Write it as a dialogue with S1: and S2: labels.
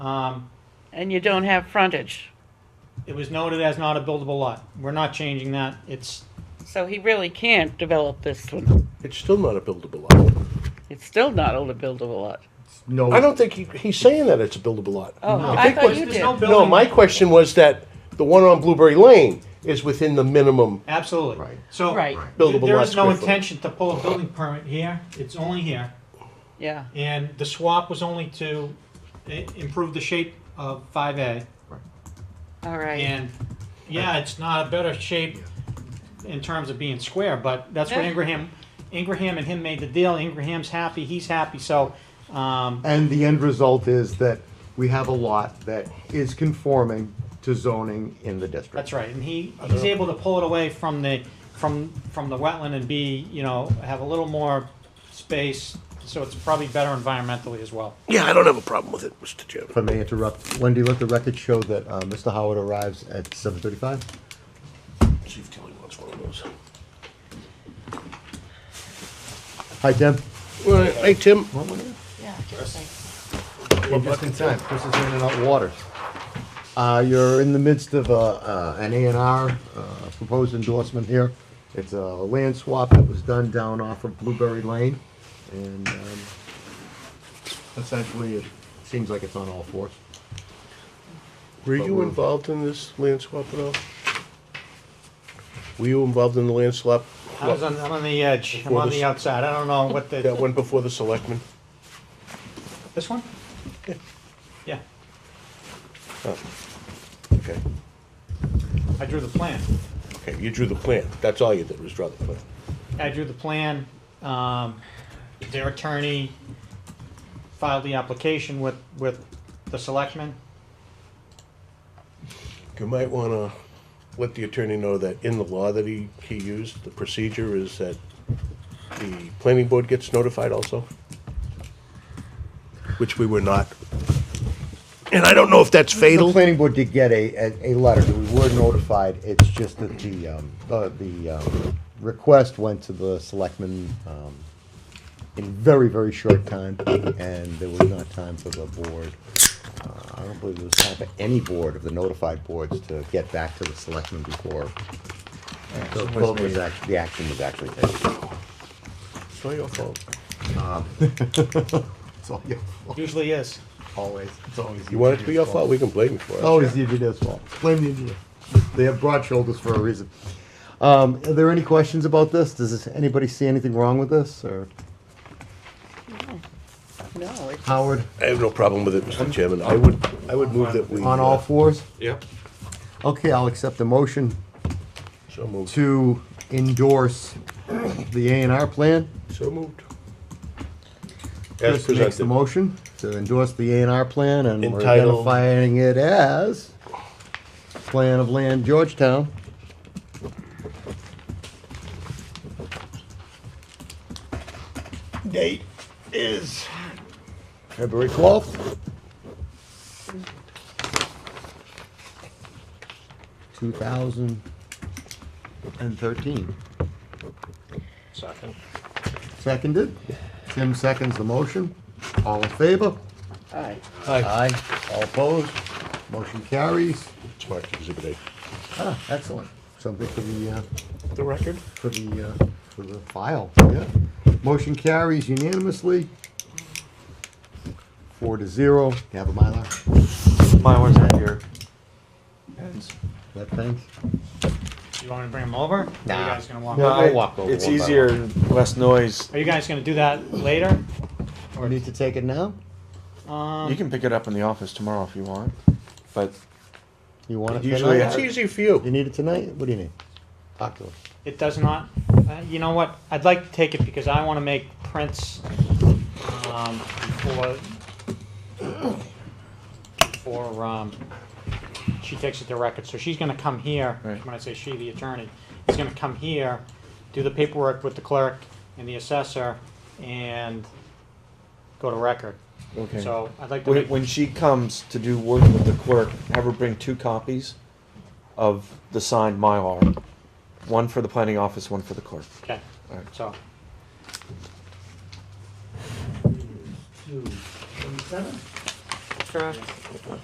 S1: Um,
S2: and you don't have frontage.
S1: it was noted as not a buildable lot. We're not changing that. It's,
S2: So he really can't develop this one.
S3: It's still not a buildable lot.
S2: It's still not a buildable lot.
S3: I don't think he, he's saying that it's a buildable lot.
S2: Oh,
S1: No.
S2: I thought
S3: There's-
S2: you
S1: there's
S2: did.
S1: no building.
S3: No, my question was that the one on Blueberry Lane is within the minimum.
S1: absolutely.
S4: Right.
S1: So
S2: Right.
S1: th-
S3: Buildable
S1: there
S3: lot
S1: is no
S3: square foot.
S1: intention to pull a building permit here. It's only here.
S2: Yeah,
S1: And the swap was only to i- improve the shape of five A.
S2: all right.
S1: And, yeah, it's not a better shape in terms of being square, but that's what
S2: Yeah.
S1: Ingraham, Ingraham and him made the deal. Ingraham's happy, he's happy, so, um,
S4: And the end result is that we have a lot that is conforming to zoning in the district.
S1: that's right. And he, he's able to pull it away from the, from, from the wetland and be, you know, have a little more space, so it's probably better environmentally as well.
S3: Yeah, I don't have a problem with it, Mr.
S5: If
S3: Chairman.
S5: I may interrupt, Wendy, let the record show that uh, Mr. Howard arrives at seven thirty-five.
S3: See if Tilly wants one of those.
S5: Hi, Tim.
S3: All right, Hey, Tim.
S5: We're just in time. Chris is in and out water. Uh, you're in the midst of a, uh, an A and R, uh, proposed endorsement here. It's a land swap that was done down off of Blueberry Lane, and, um, essentially, it seems like it's on all fours.
S3: Were you involved in this land swap at all? Were you involved in the land swap?
S1: I was on, I'm on the edge, I'm on the outside, I don't know what
S3: That
S1: the,
S3: one before the selectmen?
S1: this one? Yeah,
S3: Oh, Okay,
S1: I drew the plan.
S3: okay, you drew the plan. That's all you did was draw the plan.
S1: I drew the plan, um, their attorney filed the application with, with the selectmen.
S3: You might want to let the attorney know that in the law that he, he used, the procedure is that the planning board gets notified also, which we were not. And I don't know if that's
S5: The
S3: fatal.
S5: planning board did get a, a, a letter, we were notified, it's just that the, um, uh, the, um, request went to the selectmen, um, in very, very short time, and there was not time for the board. Uh, I don't believe there was time for any board of the notified boards to get back to the selectmen before. The vote was act, the action was actually taken.
S3: It's not your fault.
S5: It's all your fault,
S1: Usually is.
S5: always, it's always.
S3: You want it to be your fault, we can blame you for it.
S5: Always the engineer's fault. Blame the engineer. They have broad shoulders for a reason. Um, are there any questions about this? Does this- anybody see anything wrong with this, or
S2: No, it's,
S5: Howard,
S3: I have no problem with it, Mr. Chairman. I would, I would move that we.
S5: on all
S3: uh,
S5: fours?
S4: Yep.
S5: Okay, I'll accept the motion
S3: uh, So moved.
S5: to endorse the A and R plan.
S3: So moved. As
S5: Chris makes the
S3: presented.
S5: motion to endorse the A and R plan, and we're
S3: Entitled-
S5: identifying it as Plan of Land Georgetown.
S3: Date is.
S5: February twelfth. Two thousand and thirteen.
S3: Second.
S5: Seconded. Tim seconds the motion. All in favor?
S2: aye.
S5: Aye. All opposed? Motion carries.
S3: It's marked exhibit A.
S5: Ah, excellent. Something for the, uh,
S3: The record?
S5: for the, uh, for the file. Yeah. Motion carries unanimously. Four to zero. You have a Mylar?
S6: My one's not here.
S5: That thing?
S1: You want me to bring them over? Or Are
S5: Nah.
S1: you guys gonna walk?
S5: No.
S1: over?
S5: I'll walk over
S6: It's
S5: one by
S6: easier and less noise.
S1: Are you guys gonna do that later?
S5: Or need to take it now?
S1: um,
S6: You can pick it up in the office tomorrow if you want, but
S5: You want it
S6: Usually
S5: tonight?
S3: It's easy for you.
S5: You need it tonight? What do you need? Talk to him.
S1: It does not, uh, you know what, I'd like to take it because I wanna make prints, um, before, before, um, she takes it to record, so she's gonna come here,
S6: Right.
S1: when I say she, the attorney, is gonna come here, do the paperwork with the clerk and the assessor, and go to record.
S6: okay.
S1: So I'd like to
S6: When,
S1: make,
S6: when she comes to do work with the clerk, have her bring two copies of the signed Mylar, one for the planning office, one for the clerk.
S1: okay,
S6: All right.
S1: so,
S2: for